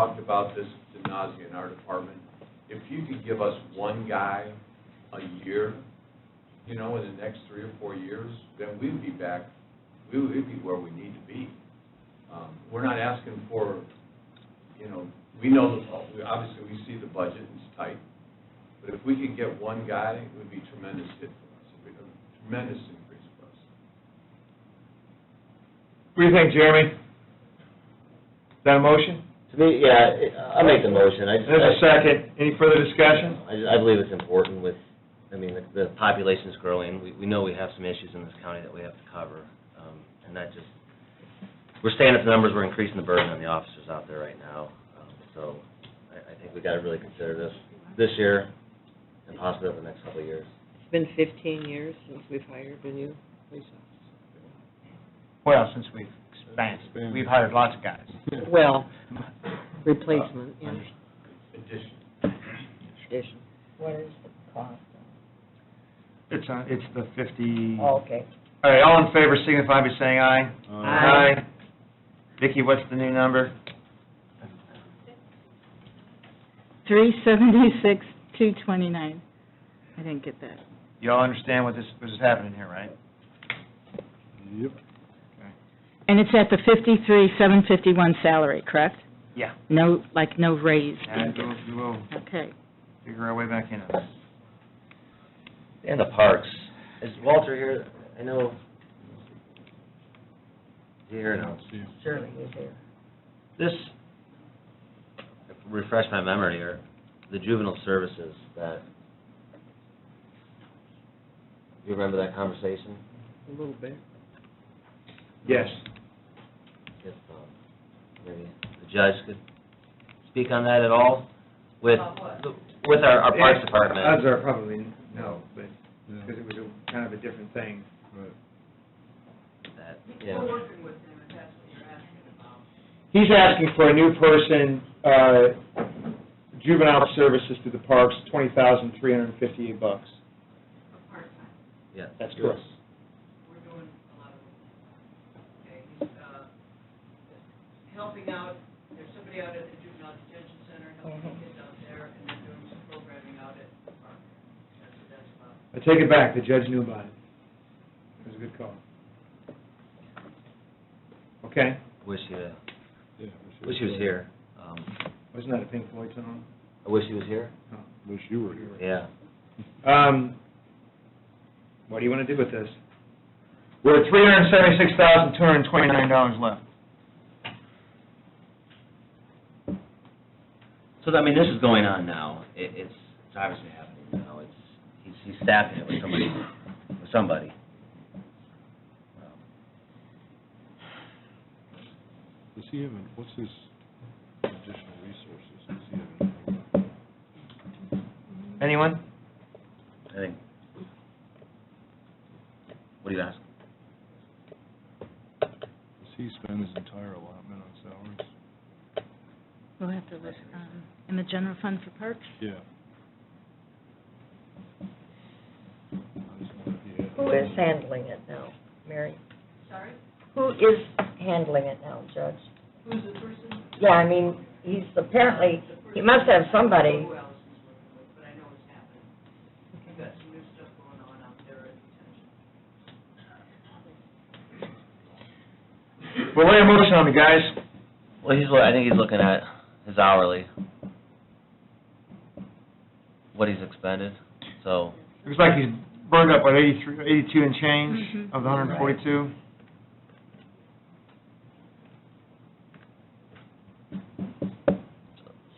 talked about this to nausea in our department. If you could give us one guy a year, you know, in the next three or four years, then we'd be back, we would we'd be where we need to be. Um, We're not asking for, you know, we know, the- we- obviously, we see the budget, and it's tight, but if we could get one guy, it would be tremendous hit for us, It'd be a tremendous increase for us. What do you think, Jeremy? Is that a motion? To me, yeah, it- I'll make the motion. I just- There's a second. Any further discussion? I, just- I believe it's important with, I mean, the- the population's growing. We, we know we have some issues in this county that we have to cover. um, And that just, we're staying at the numbers, we're increasing the burden on the officers out there right now. Um, So I, I think we gotta really consider this, this year and possibly over the next couple of years. It's been fifteen years since we've hired a new police Well, since we've expanded, we've hired lots of guys. officer. Well, uh, replacement, yeah, Addition, addition. What is the cost? It's, uh, it's the fifty, Oh, all Okay, right, all in favor signify by saying aye. Aye. Vicki, what's the new number? Three seventy-six, two twenty-nine. I didn't get that. Y'all understand what this, what is happening here, right? Yep. And it's at the fifty-three, seven fifty-one salary, correct? Yeah. No, like, no raise being And given. we'll, we'll Okay. figure our way back in on this. And the parks. Is Walter here? I know. Is he here now? surely he's there. This, refresh my memory here, the juvenile services that, you remember that conversation? A little bit. Yes. If, um, maybe the judge could speak on that at all with, with our, our parks Odds department? are probably no, but, because it was a, kind of a different thing. that, yeah. He's asking for a new person, uh, juvenile services through the parks, twenty thousand, three hundred and fifty-eight bucks. Yeah. That's correct. we're doing a lot of, okay, he's, uh, helping out, there's somebody out at the juvenile detention center, helping Uh-huh. kids out there, and they're doing some programming out at the park. That's what that's about. I take it back, the judge knew about it. It was a good call. Okay, Wish he, uh, wish he was here. Um, wasn't that a Pink Floyd song? I wish he was here, Wish you were here. yeah. Um, what do you want to do with this? We're at three hundred and seventy-six thousand, two hundred and twenty-nine dollars left. So, I mean, this is going on now. It, it's, it's obviously happening now. It's, he's, he's staffing it with somebody, with somebody. Does he have, an- what's his additional resources? Does he have anything about that? Anyone? I think. What do you ask? Does he spend his entire allotment on salaries? We'll have to look, um, in the general fund for parks? Yeah. I just wonder if he had- Who is handling it now, Mary? Sorry, Who is handling it now, Judge? who's the person? Yeah, I mean, he's apparently, he must have somebody. Who else is working with, but I know it's happening. We've got some new stuff going on out there at detention. Well, lay a motion on the guys. Well, he's, I think he's looking at his hourly. What he's expended, so. Looks like he's burned up, what, eighty-three, eighty-two and change Mm-hmm. Mhm. of the hundred and forty-two?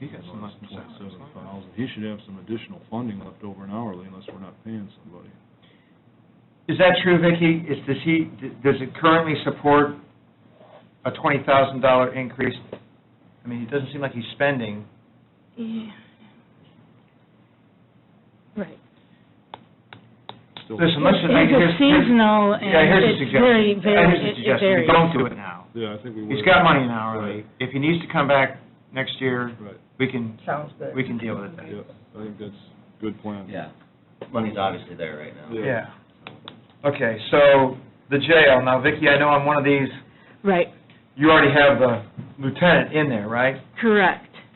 He got some nice Twenty-seven thousand. He should have some additional funding left over in hourly unless we're not paying somebody. Is that true, Vicki? Is, does he, does it currently support a twenty thousand dollar increase? I mean, it doesn't seem like he's spending. Yeah. Right. Still- Listen, let's just make it. It's a seasonal, and Yeah, here's a it's very, suggestion. Yeah, Here's very, a it it suggestion, varies. don't do it now. Yeah, I think we would. He's got money in hourly. If he needs to come back next year, Right, we can, Sounds good. we can deal with it then. yeah, I think that's a good plan. Yeah. Money's obviously there right now. Yeah. Yeah. Okay, so the jail, now Vicki, I know on one of these, Right, you already have the lieutenant in there, right? correct.